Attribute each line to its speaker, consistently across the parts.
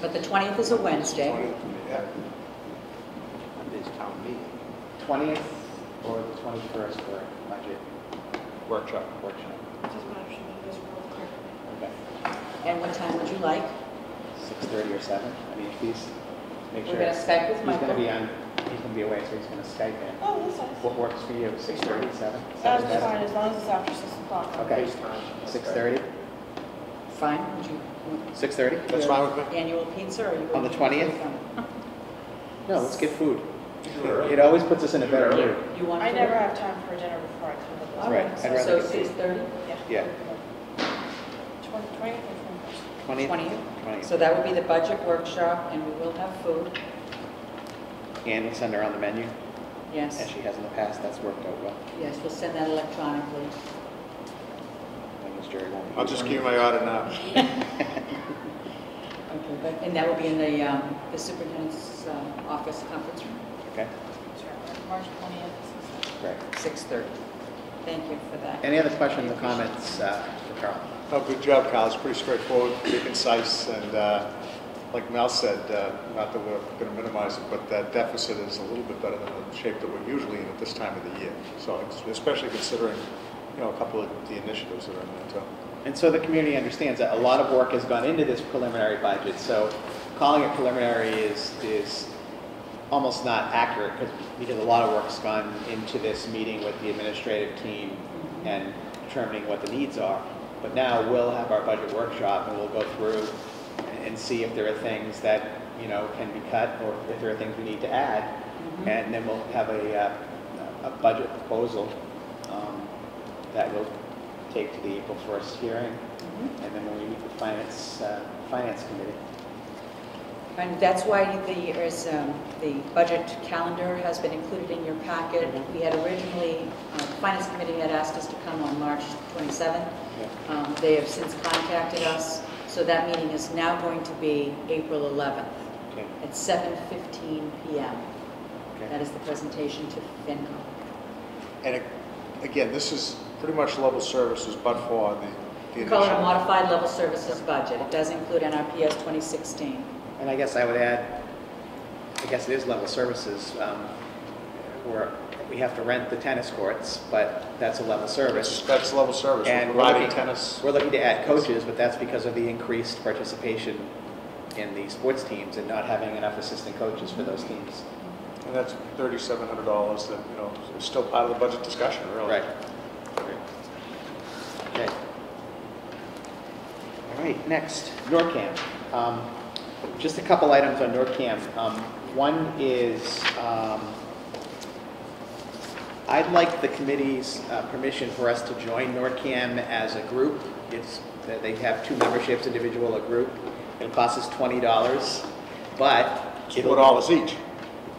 Speaker 1: But the 20th is a Wednesday.
Speaker 2: Yeah.
Speaker 3: Monday's town meeting,
Speaker 4: 20th or the 21st for budget
Speaker 3: workshop.
Speaker 4: workshop?
Speaker 5: Just want to show you this real quick.
Speaker 4: Okay,
Speaker 1: And what time would you like?
Speaker 4: 6:30 or 7? I mean, if he's, make sure.
Speaker 1: We're gonna Skype with
Speaker 4: He's gonna
Speaker 1: Michael.
Speaker 4: be on, he's gonna be away, so he's gonna Skype in.
Speaker 5: Oh, this is.
Speaker 4: What works for you, 6:30, 7?
Speaker 5: That's fine, as long as it's after six o'clock.
Speaker 4: Okay,
Speaker 3: FaceTime.
Speaker 4: 6:30?
Speaker 1: Fine, would you?
Speaker 4: 6:30?
Speaker 3: That's fine with me.
Speaker 1: Annual pizza or you?
Speaker 4: On the 20th? No, let's get food. It
Speaker 2: Sure.
Speaker 4: always puts us in a better mood.
Speaker 1: You want?
Speaker 5: I
Speaker 1: to-
Speaker 5: never have time for dinner before I come to
Speaker 1: All
Speaker 5: this.
Speaker 4: Right,
Speaker 1: right,
Speaker 4: I'd rather
Speaker 1: so
Speaker 4: get-
Speaker 1: 6:30?
Speaker 4: Yeah,
Speaker 5: Twenty, twenty, twenty-first.
Speaker 4: 20th?
Speaker 1: 20th.
Speaker 4: 20th.
Speaker 1: So that would be the budget workshop and we will have food,
Speaker 4: And we'll send her on the menu, as
Speaker 1: yes.
Speaker 4: she has in the past, that's worked out well.
Speaker 1: Yes, we'll send that electronically.
Speaker 4: That means Jerry won't be
Speaker 3: I'll just
Speaker 4: here.
Speaker 3: give you my order now.
Speaker 1: Okay, but, and that will be in the um, the superintendent's um, office conference room,
Speaker 4: Okay,
Speaker 5: March twentieth.
Speaker 4: great.
Speaker 1: 6:30. Thank you for that.
Speaker 4: Any other questions or comments uh, for Carl?
Speaker 3: Oh, good job, Kyle, it's pretty straightforward, pretty concise, and uh, like Mel said, uh, not that we're going to minimize it, but that deficit is a little bit better than the shape that we're usually in at this time of the year. So it's- especially considering, you know, a couple of the initiatives that are in there too.
Speaker 4: And so the community understands that a lot of work has gone into this preliminary budget, so calling it preliminary is, is almost not accurate because, because a lot of work's gone into this meeting with the administrative team and determining what the needs are. But now we'll have our budget workshop and we'll go through and see if there are things that, you know, can be cut or if there are things we need to add. And then we'll have a, uh, a budget proposal um, that we'll take to the April 1st hearing. And then when we meet with finance, uh, finance committee,
Speaker 1: And that's why the, is, um, the budget calendar has been included in your packet.
Speaker 4: Mm-hmm.
Speaker 1: We had originally, uh, the Finance Committee had asked us to come on March 27th.
Speaker 4: Yeah.
Speaker 1: Um, They have since contacted us, so that meeting is now going to be April 11th
Speaker 4: Okay.
Speaker 1: at 7:15 PM.
Speaker 4: Okay.
Speaker 1: That is the presentation to FinCom.
Speaker 3: And it- again, this is pretty much level services, but for the. the
Speaker 1: We call it a
Speaker 3: initial-
Speaker 1: modified level services budget. It does include NRPS 2016.
Speaker 4: And I guess I would add, I guess it is level services, um, where we have to rent the tennis courts, but that's a level
Speaker 3: That's
Speaker 4: service.
Speaker 3: that's level service, We're
Speaker 4: And we're
Speaker 3: providing
Speaker 4: looking-
Speaker 3: tennis.
Speaker 4: We're looking to add coaches, but that's because of the increased participation in the sports teams and not having enough assistant coaches for those teams.
Speaker 3: And that's thirty-seven hundred dollars that, you know, is still part of the budget discussion, really.
Speaker 4: Right. Okay. All right, next, NORCAM. Um, Just a couple items on NORCAM. Um, One is, um, I'd like the committee's uh, permission for us to join NORCAM as a group. It's, that they have two memberships, individual or group. It costs us twenty dollars, but.
Speaker 3: It's
Speaker 4: it'll-
Speaker 3: Four dollars each.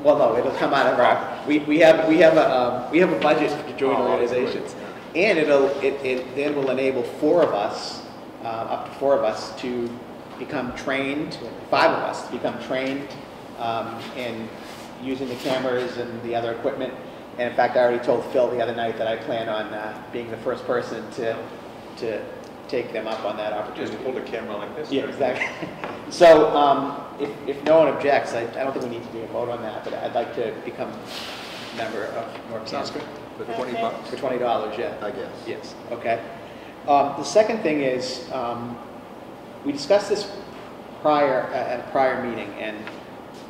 Speaker 4: well, no, it'll come out of our, we, we have, we have a, um, we have a budget for joint
Speaker 3: Oh, okay.
Speaker 4: organizations. And it'll, it, it then will enable four of us, uh, up to four of us to become trained, five of us to become trained, um, in using the cameras and the other equipment. And in fact, I already told Phil the other night that I plan on, uh, being the first person to, to take them up on that opportunity.
Speaker 2: a camera like this.
Speaker 4: Yeah, exactly. So um, if, if no one objects, I, I don't think we need to do a vote on that, but I'd like to become a member of North
Speaker 3: Sounds
Speaker 4: Canton.
Speaker 3: good.
Speaker 2: For
Speaker 5: Okay.
Speaker 2: 20 bucks,
Speaker 4: For twenty dollars, yeah.
Speaker 2: I guess.
Speaker 4: Yes, okay. Um, The second thing is, um, we discussed this prior, at at a prior meeting, and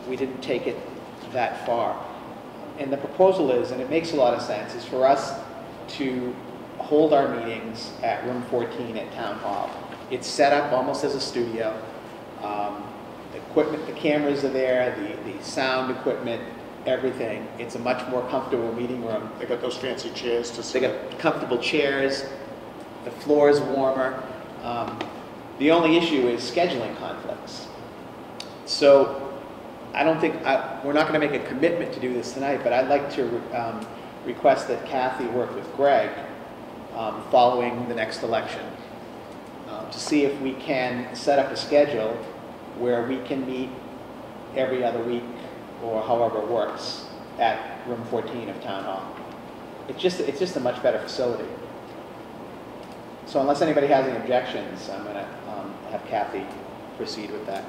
Speaker 4: we didn't take it that far. And the proposal is, and it makes a lot of sense, is for us to hold our meetings at room 14 at Town Hall. It's set up almost as a studio. Um, The Equipment, the cameras are there, the, the sound equipment, everything. It's a much more comfortable meeting room.
Speaker 3: They got those fancy chairs to
Speaker 4: They
Speaker 3: sit.
Speaker 4: got comfortable chairs, the floor is warmer. Um, The only issue is scheduling conflicts. So I don't think, I- we're not going to make a commitment to do this tonight, but I'd like to um, request that Kathy work with Greg um, following the next election uh, to see if we can set up a schedule where we can meet every other week or however it works at room 14 of Town Hall. It's just, it's just a much better facility. So unless anybody has any objections, I'm going to have Kathy um, proceed with that.